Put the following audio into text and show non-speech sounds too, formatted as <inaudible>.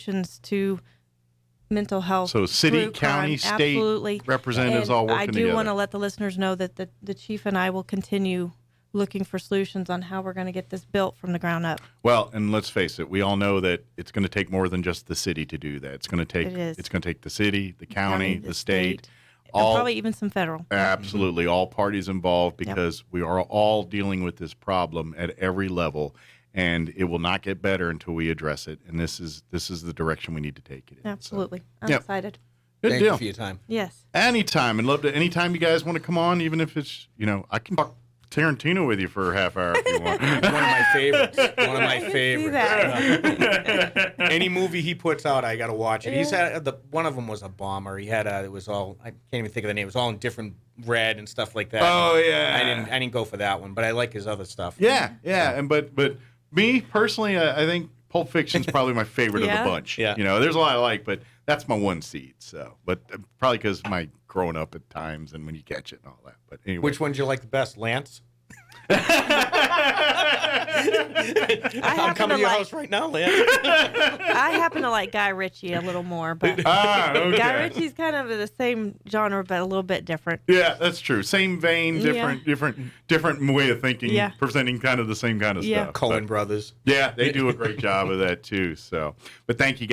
connections to mental health. So city, through county, crime. state Absolutely. representatives all And working I do together. want to let the listeners know that the, the chief and I will continue looking for solutions on how we're going to get this built from the ground up. Well, and let's face it, we all know that it's going to take more than just the city to do that. It's going to take It is. it's going to take the city, the county, the state, and all probably even some federal. absolutely all parties involved because we are all dealing with this problem at every level and it will not get better until we address it and this is this is the direction we need to take it in. So, Absolutely. I'm Yep. excited. good Thank deal. you for your time. Yes. Anytime, and love to. Anytime you guys want to come on, even if it's you know, I can talk Tarantino with you for a half hour if you want. One of my favorites. One of my favorites. that. Any movie he puts out, I gotta watch it. He's had the one of them was a bomber. He had a it was all I can't even think of the name. It was all in different red and stuff like that. Oh, yeah. I didn't I didn't go for that one, but I like his other stuff. yeah, yeah, and but but me personally, I, I think Pulp <laughs> Fiction's probably my favorite Yeah? of the bunch. Yeah. you know, there's a lot I like, but that's my one seed. So, but uh, probably because my growing up at times and when you catch it and all that. But anyway, Which one do you like the <laughs> best, Lance? I'm happen to coming to your like- house right now, Lance. I happen to like Guy Ritchie a little more, but <laughs> ah, Guy okay. Ritchie's kind of the same genre, but a little bit different. Yeah, that's true. Same vein, Yeah. different, different, different way of thinking, Yeah. presenting kind of the same kind of Yeah. stuff. Cohen Brothers. Yeah, they do a great job of that too. So, but thank you.